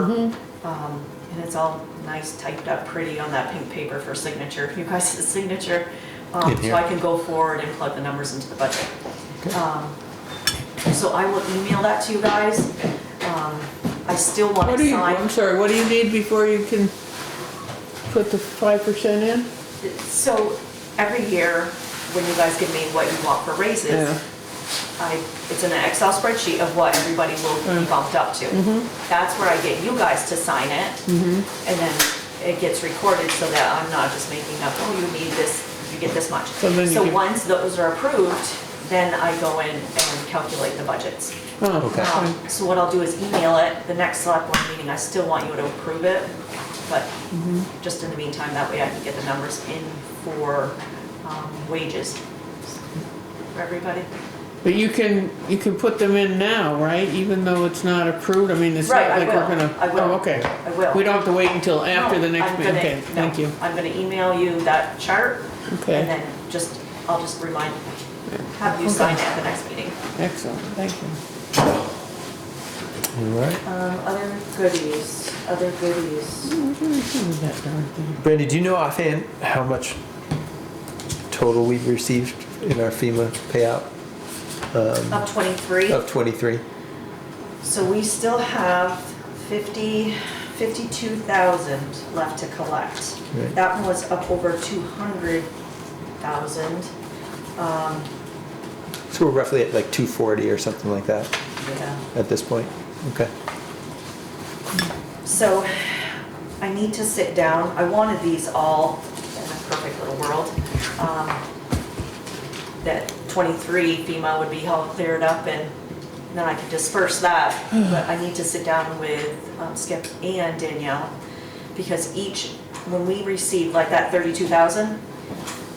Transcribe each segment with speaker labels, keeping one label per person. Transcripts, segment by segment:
Speaker 1: Mm-hmm.
Speaker 2: Um, And it's all nice typed up pretty on that pink paper for signature, you guys' signature. um,
Speaker 3: In
Speaker 2: So I
Speaker 3: here.
Speaker 2: can go forward and plug the numbers into the budget. Um, So I will email that to you guys. Um, I still want to
Speaker 1: What do you,
Speaker 2: sign.
Speaker 1: I'm sorry, what do you need before you can put the five percent in?
Speaker 2: So every year, when you guys give me what you want for
Speaker 1: Yeah.
Speaker 2: raises, I, it's in an Excel spreadsheet of what everybody will be
Speaker 1: Mm-hmm.
Speaker 2: bumped up to. That's where I get you guys to sign it,
Speaker 1: Mm-hmm.
Speaker 2: and then it gets recorded so that I'm not just making up, oh, you need this, you get this much.
Speaker 1: So then you
Speaker 2: So
Speaker 1: can-
Speaker 2: once those are approved, then I go in and calculate the budgets.
Speaker 1: Oh,
Speaker 3: Okay.
Speaker 2: Um, So what I'll do is email it, the next select board meeting, I still want you to approve it, but
Speaker 1: Mm-hmm.
Speaker 2: just in the meantime, that way I can get the numbers in for um, wages for everybody.
Speaker 1: But you can, you can put them in now, right? Even though it's not approved, I mean, it's
Speaker 2: Right,
Speaker 1: not
Speaker 2: I
Speaker 1: like we're
Speaker 2: will.
Speaker 1: gonna.
Speaker 2: I will.
Speaker 1: Oh, okay.
Speaker 2: I will.
Speaker 1: We don't have to wait until after
Speaker 2: No,
Speaker 1: the next
Speaker 2: I'm
Speaker 1: meeting,
Speaker 2: gonna-
Speaker 1: okay,
Speaker 2: no,
Speaker 1: thank you.
Speaker 2: I'm gonna email you that chart, and
Speaker 1: Okay,
Speaker 2: then just, I'll just remind, have you sign it at the next meeting.
Speaker 1: excellent, thank you.
Speaker 3: All right.
Speaker 2: Um, Other goodies, other goodies.
Speaker 1: What do we do with that darn thing?
Speaker 3: Brandy, do you know offhand how much total we've received in our FEMA payout Um,
Speaker 2: Up 23.
Speaker 3: of 23?
Speaker 2: So we still have 50, 52,000 left to collect.
Speaker 3: Right.
Speaker 2: That one was up over 200,000. Um,
Speaker 3: So we're roughly at like 240 or something like that
Speaker 2: Yeah.
Speaker 3: at this point? Okay.
Speaker 2: So I need to sit down. I wanted these all in a perfect little world. um, That 23 FEMA would be all cleared up and then I could disperse that. But I need to sit down with um, Skip and Danielle because each, when we receive like that 32,000,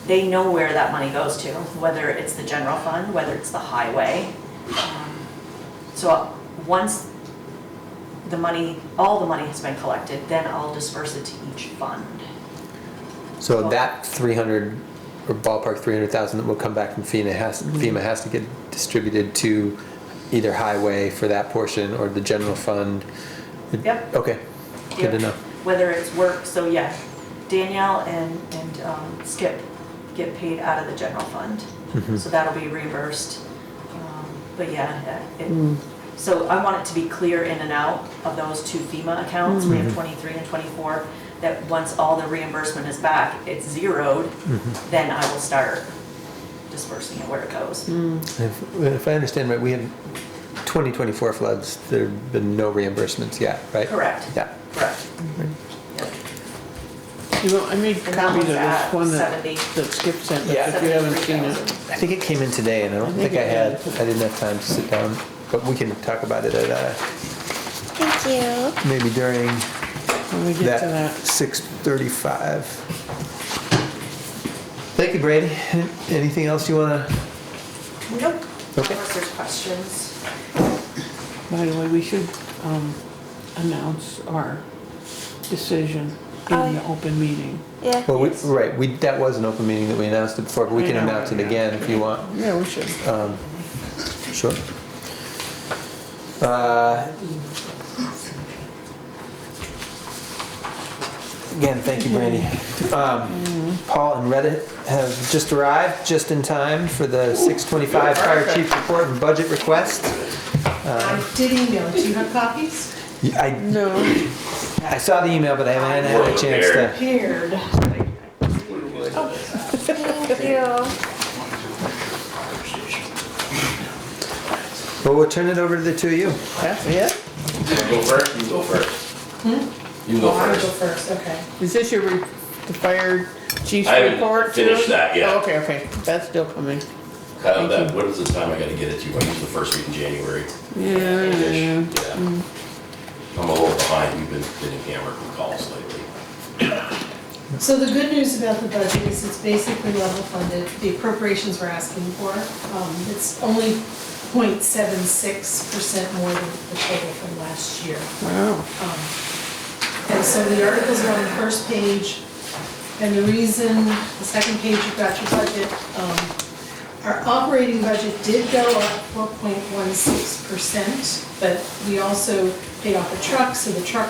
Speaker 2: they know where that money goes to, whether it's the general fund, whether it's the highway. Um, So once the money, all the money has been collected, then I'll disperse it to each fund.
Speaker 3: So that 300, or ballpark 300,000 that will come back from FEMA has,
Speaker 2: Mm-hmm.
Speaker 3: FEMA has to get distributed to either highway for that portion or the general fund?
Speaker 2: Yep.
Speaker 3: Okay, good to know.
Speaker 2: Whether it's work, so yeah, Danielle and, and um, Skip get paid out of the general fund. So that'll be reimbursed. Um, But yeah, uh, it, so I want it to be clear in and out of those two FEMA accounts, we have 23 and 24, that once all the reimbursement is back, it's zeroed, then I will start dispersing it where it goes.
Speaker 3: If if I understand right, we had 2024 floods, there've been no reimbursements yet, right?
Speaker 2: Correct.
Speaker 3: Yeah.
Speaker 2: Correct. Yep.
Speaker 1: You know, I made
Speaker 2: that
Speaker 1: copies of
Speaker 2: one's
Speaker 1: this
Speaker 2: at
Speaker 1: one that,
Speaker 2: 70.
Speaker 1: that Skip sent, but
Speaker 3: Yeah.
Speaker 1: if you haven't seen it.
Speaker 2: 73,000.
Speaker 3: I think it came in today, and I don't
Speaker 1: I think
Speaker 3: think I
Speaker 1: it
Speaker 3: had,
Speaker 1: did.
Speaker 3: I didn't have time to sit down, but we can talk about it at, uh,
Speaker 4: Thank you.
Speaker 3: maybe during
Speaker 1: When we get to that,
Speaker 3: that 6:35. Thank you, Brady. Anything else you wanna?
Speaker 2: Nope,
Speaker 3: Okay.
Speaker 2: unless there's questions.
Speaker 1: by the way, we should, um, announce our decision
Speaker 4: Oh,
Speaker 1: in
Speaker 4: yeah.
Speaker 1: the open meeting.
Speaker 4: Yeah.
Speaker 3: Well, we, right, we, that was an open meeting that we announced it before, but we
Speaker 1: I
Speaker 3: can
Speaker 1: know.
Speaker 3: announce it again if you want.
Speaker 1: Yeah, we should.
Speaker 3: Um, Sure. Uh, Again, thank you, Brandy. Um, Paul and Reddit have just arrived, just in time for the 6:25 Fire Chief Report and Budget Request.
Speaker 5: I did email it. Do you have copies?
Speaker 3: Y- I,
Speaker 1: No,
Speaker 3: I saw the email, but I haven't had a chance to.
Speaker 5: Paired.
Speaker 4: Thank you.
Speaker 3: Well, we'll turn it over to the two of you.
Speaker 1: that's it?
Speaker 6: Go first, you go first. You go
Speaker 5: Oh, I go
Speaker 6: first.
Speaker 5: first, okay.
Speaker 1: Is this your, re- the fire chief's
Speaker 6: I haven't
Speaker 1: report? too?
Speaker 6: finished that yet.
Speaker 1: Oh, Okay, okay, that's still coming.
Speaker 6: Kyle,
Speaker 1: Thank
Speaker 6: that, what is the time I gotta get it to? I use the first week in January.
Speaker 1: Yeah,
Speaker 6: Ish,
Speaker 1: Mm.
Speaker 6: Yeah. I'm a little behind. You've been getting hammered with calls lately.
Speaker 5: So the good news about the budget is it's basically level funded, the appropriations we're asking for. um, It's only 0.76 percent more than the total from last year.
Speaker 1: wow.
Speaker 5: Um, And so the articles are on the first page, and the reason, the second page, you've got your budget. um, Our operating budget did go up 4.16%, but we also paid off a truck, so the truck